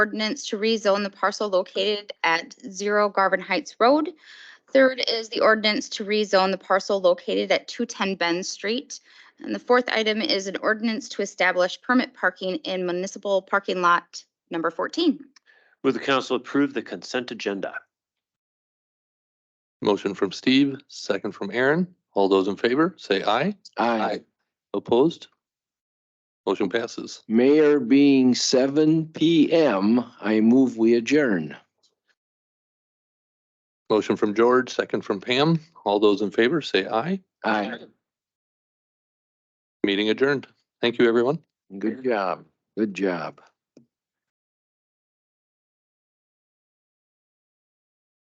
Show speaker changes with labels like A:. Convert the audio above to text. A: ordinance to rezone the parcel located at zero Garvin Heights Road. Third is the ordinance to rezone the parcel located at two ten Bend Street. And the fourth item is an ordinance to establish permit parking in municipal parking lot number fourteen.
B: Move the council approve the consent agenda.
C: Motion from Steve, second from Aaron. All those in favor, say aye.
D: Aye.
C: Opposed? Motion passes.
D: Mayor being seven PM, I move we adjourn.
C: Motion from George, second from Pam. All those in favor, say aye.
D: Aye.
C: Meeting adjourned. Thank you, everyone.
D: Good job. Good job.